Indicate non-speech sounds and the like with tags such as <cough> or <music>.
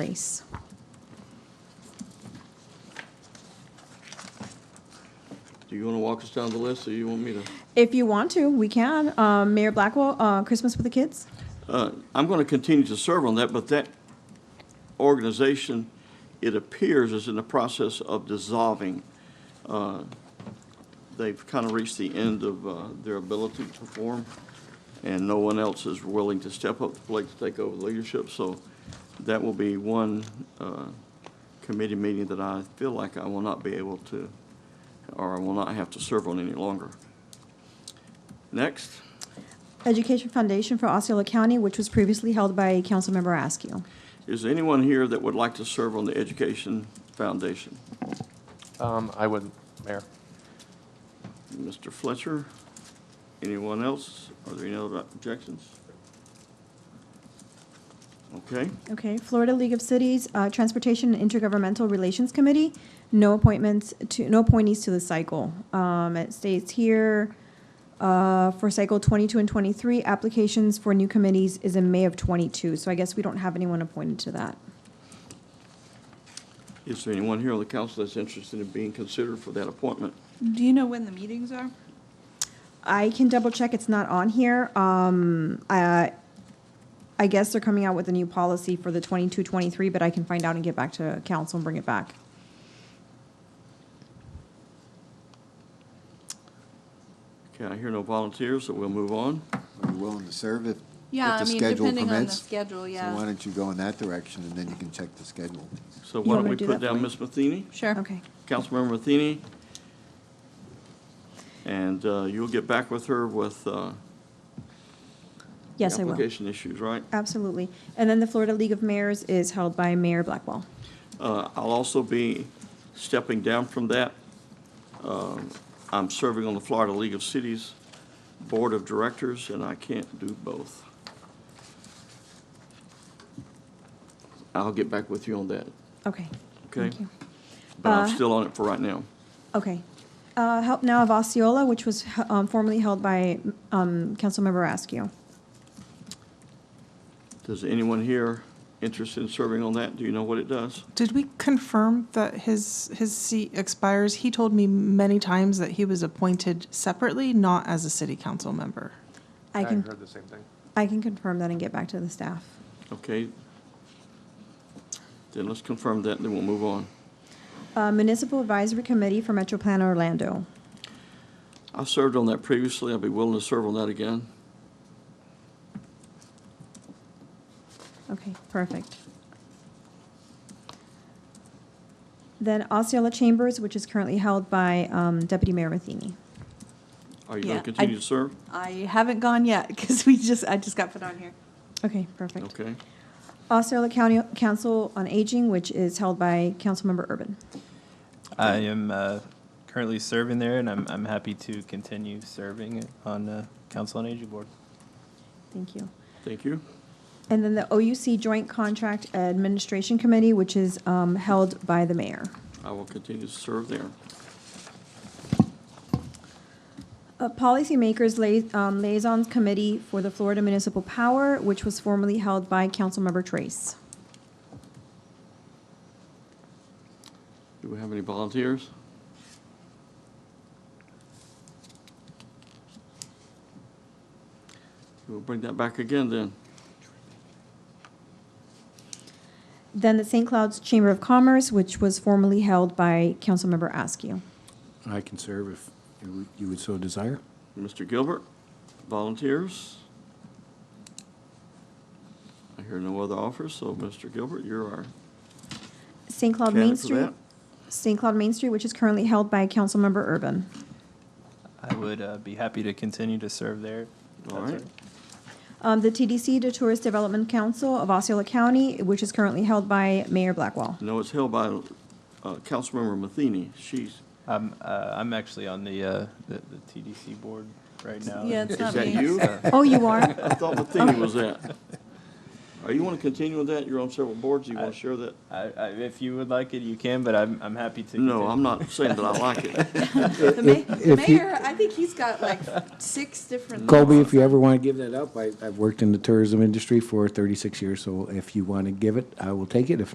place. Do you want to walk us down the list, or you want me to? If you want to, we can. Um, Mayor Blackwell, uh, Christmas with the Kids. Uh, I'm going to continue to serve on that, but that organization, it appears, is in the process of dissolving. Uh, They've kind of reached the end of uh, their ability to perform, and no one else is willing to step up to the plate to take over leadership. So that will be one uh, committee meeting that I feel like I will not be able to, or I will not have to serve on any longer. Next. Education Foundation for Osceola County, which was previously held by Councilmember Askew. Is there anyone here that would like to serve on the Education Foundation? Um, I would, Mayor. Mr. Fletcher? Anyone else? Are there any other objections? Okay, Okay, Florida League of Cities, uh, Transportation and Intergovernmental Relations Committee, no appointments to, no appointees to the cycle. Um, it states here, uh, for cycle twenty-two and twenty-three, applications for new committees is in May of twenty-two, so I guess we don't have anyone appointed to that. is there anyone here on the council that's interested in being considered for that appointment? Do you know when the meetings are? I can double check, it's not on here. Um, I, I guess they're coming out with a new policy for the twenty-two, twenty-three, but I can find out and get back to council and bring it back. Okay, I hear no volunteers, so we'll move on. Are you willing to serve if, if Yeah, I the mean, schedule depending on the permits? schedule, So why yeah. don't you go in that direction, and then you can check the schedule. So You why want don't me we to do put that for down you? Ms. Matheny, Sure. Okay. Councilmember Matheny? And uh, you'll get back with her with uh, Yes, I will. Application issues, right? Absolutely. And then the Florida League of Mayors is held by Mayor Blackwell. Uh, I'll also be stepping down from that. Um, I'm serving on the Florida League of Cities Board of Directors, and I can't do both. I'll get back with you on that, Okay. okay? Thank you. But I'm Uh, still on it for right now. Okay. Uh, Help Now of Osceola, which was um, formerly held by um, Councilmember Askew. Does anyone here interested in serving on that? Do you know what it does? Did we confirm that his his seat expires? He told me many times that he was appointed separately, not as a city council member. I can, the same thing. I can confirm that and get back to the staff. Okay. Then let's confirm that, then we'll move on. Uh, Municipal Advisory Committee for Metro Plan Orlando. I served on that previously. I'll be willing to serve on that again. Okay, perfect. Then Osceola Chambers, which is currently held by um, Deputy Mayor Matheny. Are you going Yeah, I- to continue to serve? I haven't gone yet <laughs> because we just, I just got put on here. Okay, perfect. Okay. Osceola County Council on Aging, which is held by Councilmember Urban. I am uh, currently serving there, and I'm, I'm happy to continue serving on the Council on Aging Board. Thank you. Thank you. And then the OUC Joint Contract Administration Committee, which is um, held by the mayor. I will continue to serve there. Uh, Policymakers Lia- um, Liaisons Committee for the Florida Municipal Power, which was formerly held by Councilmember Trace. Do we have any volunteers? We'll bring that back again then. Then the St. Cloud's Chamber of Commerce, which was formerly held by Councilmember Askew. I can serve if you would- you would so desire. Mr. Gilbert, volunteers? I hear no other offers, so Mr. Gilbert, you're our St. Cloud Main candidate for Street, that. St. Cloud Main Street, which is currently held by Councilmember Urban. I would uh, be happy to continue to serve there. All That's right. Um, The TDC, the Tourist Development Council of Osceola County, which is currently held by Mayor <laughs> Blackwell. No, it's held by uh, Councilmember Matheny. She's, I'm, uh, I'm actually on the, uh, the the TDC board right now. Yeah, it's is not that me. you? Oh, you are? I thought Matheny was that. Are you want to continue with that? You're on several boards. You want to share that? <laughs> I, I, if you would like it, you can, but I'm, I'm happy to. No, continue. I'm not saying that I like it. The ma- the Uh, if you- mayor, I think he's got like six different. Colby, if you ever want to give that up, I, I've worked in the tourism industry for 36 years, so if you want to give it, I will take it. If